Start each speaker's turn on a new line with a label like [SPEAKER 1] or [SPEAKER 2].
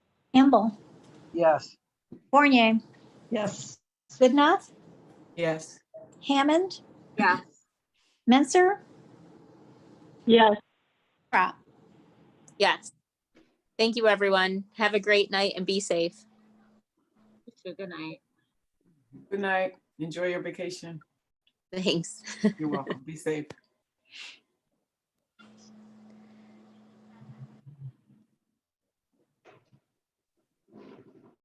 [SPEAKER 1] Campbell,
[SPEAKER 2] Yes.
[SPEAKER 1] Fournier,
[SPEAKER 3] Yes.
[SPEAKER 1] Goodenough,
[SPEAKER 4] Yes.
[SPEAKER 1] Hammond,
[SPEAKER 5] yes,
[SPEAKER 1] Menser,
[SPEAKER 3] Yes.
[SPEAKER 1] Crop.
[SPEAKER 6] Yes. Thank you, everyone. Have a great night and be safe.
[SPEAKER 5] good night.
[SPEAKER 4] Good night. Enjoy your vacation.
[SPEAKER 6] Thanks.
[SPEAKER 4] You're welcome. Be safe.